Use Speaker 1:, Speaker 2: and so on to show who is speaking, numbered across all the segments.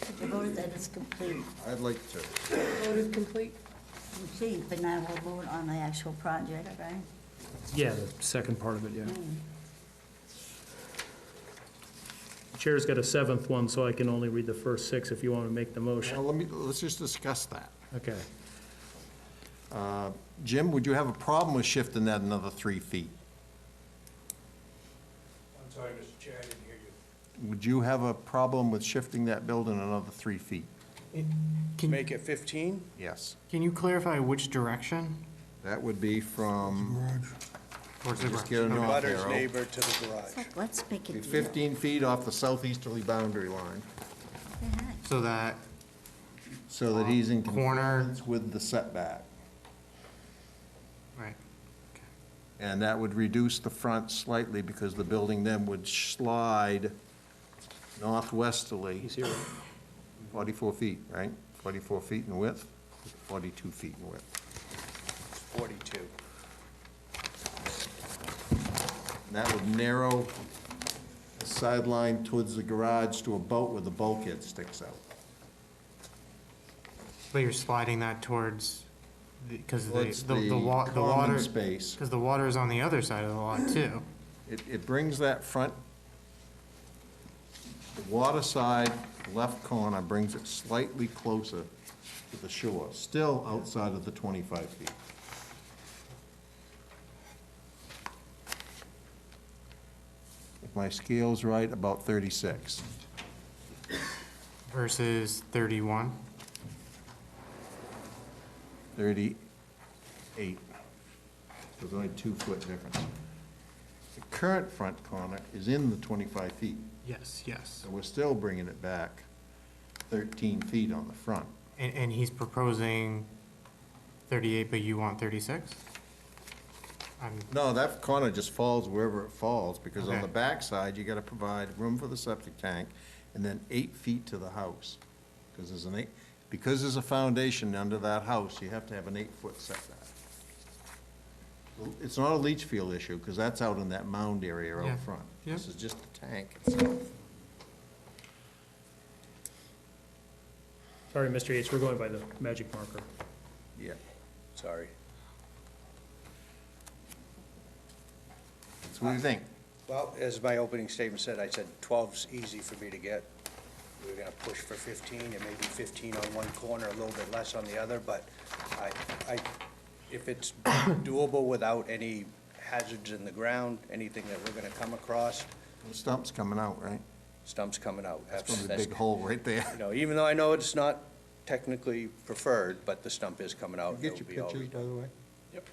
Speaker 1: that it's complete,
Speaker 2: I'd like to,
Speaker 3: Vote is complete.
Speaker 1: complete, but now we'll vote on the actual project, right?
Speaker 4: Yeah, the second part of it, yeah. Chair's got a seventh one, so I can only read the first six if you want to make the
Speaker 2: well,
Speaker 4: motion.
Speaker 2: let me, let's just discuss that.
Speaker 4: Okay.
Speaker 2: Jim, would you have a problem with shifting that another three feet?
Speaker 5: I'm sorry, Mr. Chair, I didn't hear you.
Speaker 2: Would you have a problem with shifting that building another three feet?
Speaker 3: Can,
Speaker 5: Make it 15?
Speaker 2: Yes.
Speaker 3: can you clarify which direction?
Speaker 2: That would be from,
Speaker 3: Towards the
Speaker 2: Just
Speaker 3: garage.
Speaker 2: get a
Speaker 3: Okay.
Speaker 2: North
Speaker 5: Butter's
Speaker 2: arrow.
Speaker 5: neighbor to the garage.
Speaker 1: It's like, let's make it.
Speaker 2: 15 feet off the southeasterly boundary line,
Speaker 3: So that,
Speaker 2: so that he's in
Speaker 3: Corner.
Speaker 2: compliance with the setback.
Speaker 3: right,
Speaker 2: And that would reduce the front slightly because the building then would slide northwesterly.
Speaker 4: He's here.
Speaker 2: 44 feet, right? 44 feet in width, 42 feet in width.
Speaker 5: 42.
Speaker 2: And that would narrow the sideline towards the garage to a boat where the bulkhead sticks out.
Speaker 3: but you're sliding that towards, because
Speaker 2: Towards
Speaker 3: the, the
Speaker 2: the
Speaker 3: wa, the water.
Speaker 2: common space.
Speaker 3: Because the water is on the other side of the lot too.
Speaker 2: It, it brings that front, the water side, left corner, brings it slightly closer to the shore, still outside of the 25 feet. If my scale's right, about 36.
Speaker 3: Versus thirty-one,
Speaker 2: 38. There's only two-foot difference. The current front corner is in the 25 feet,
Speaker 3: yes, yes.
Speaker 2: so we're still bringing it back 13 feet on the front.
Speaker 3: And, and he's proposing thirty-eight, but you want thirty-six? I'm,
Speaker 2: No, that corner just falls wherever it falls, because on
Speaker 3: Okay.
Speaker 2: the backside, you gotta provide room for the septic tank, and then eight feet to the house, because there's an eight, because there's a foundation under that house, you have to have an eight-foot setback. It's not a leach field issue, because that's out in that mound area
Speaker 3: Yeah.
Speaker 2: out front.
Speaker 3: Yeah.
Speaker 2: This is just the tank itself.
Speaker 4: Sorry, Mr. Yates, we're going by the magic marker.
Speaker 2: Yeah,
Speaker 5: Sorry.
Speaker 2: so what do you think?
Speaker 5: Well, as my opening statement said, I said 12's easy for me to get. We We're going to push for 15, and maybe 15 on one corner, a little bit less on the other, but I, I, if it's doable without any hazards in the ground, anything that we're going to come across,
Speaker 2: The stump's coming out, right?
Speaker 5: stump's coming out.
Speaker 2: It's gonna be a big hole right there.
Speaker 5: You know, even though I know it's not technically preferred, but the stump is coming out.
Speaker 2: Get
Speaker 5: It'll
Speaker 2: your
Speaker 5: be all
Speaker 2: pictures, by the way?
Speaker 5: Yep.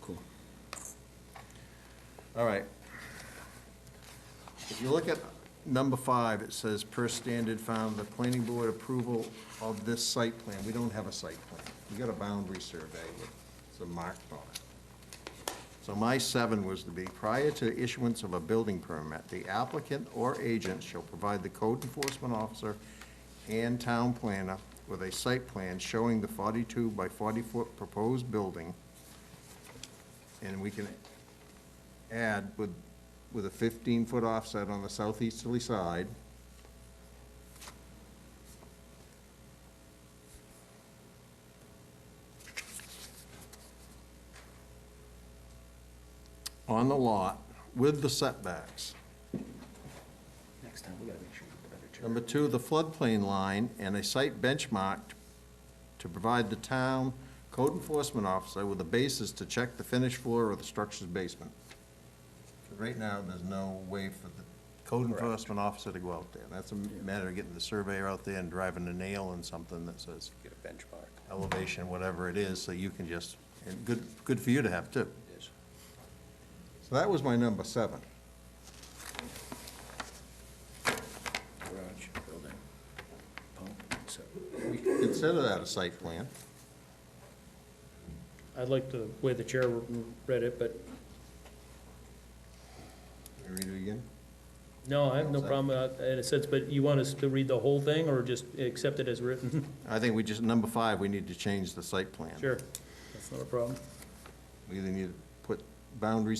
Speaker 2: Cool. All right. If you look at number five, it says, per standard found, the planning board approval of this site plan. We don't have a site plan. We got a boundary survey with some marked on it. So my seven was to be, prior to issuance of a building permit, the applicant or agent shall provide the code enforcement officer and town planner with a site plan showing the forty-two by forty-foot proposed building. And we can add with, with a fifteen-foot offset on the southeasterly side. On the lot with the setbacks.
Speaker 5: Next time, we gotta make sure you put other
Speaker 2: Number two, the floodplain line and a site benchmark to provide the town code enforcement officer with a basis to check the finished floor of the structure's basement. Right now, there's no way for the code enforcement officer to go out there. That's a matter of getting the surveyor out there and driving a nail in something that says
Speaker 5: Get a benchmark,
Speaker 2: elevation, whatever it is, so you can just, and good, good for you to have too.
Speaker 5: it is.
Speaker 2: So that was my number seven.
Speaker 5: Garage, building, pump, so.
Speaker 2: We can consider that a site plan.
Speaker 4: I like the way the chair read it, but
Speaker 2: Can we Read it again?
Speaker 4: no, I have no problem uh, in a sense, but you want us to read the whole thing or just accept it as written?
Speaker 2: I think we just, number five, we need to change the site plan.
Speaker 4: Sure, that's not a problem.
Speaker 2: We either need to put boundaries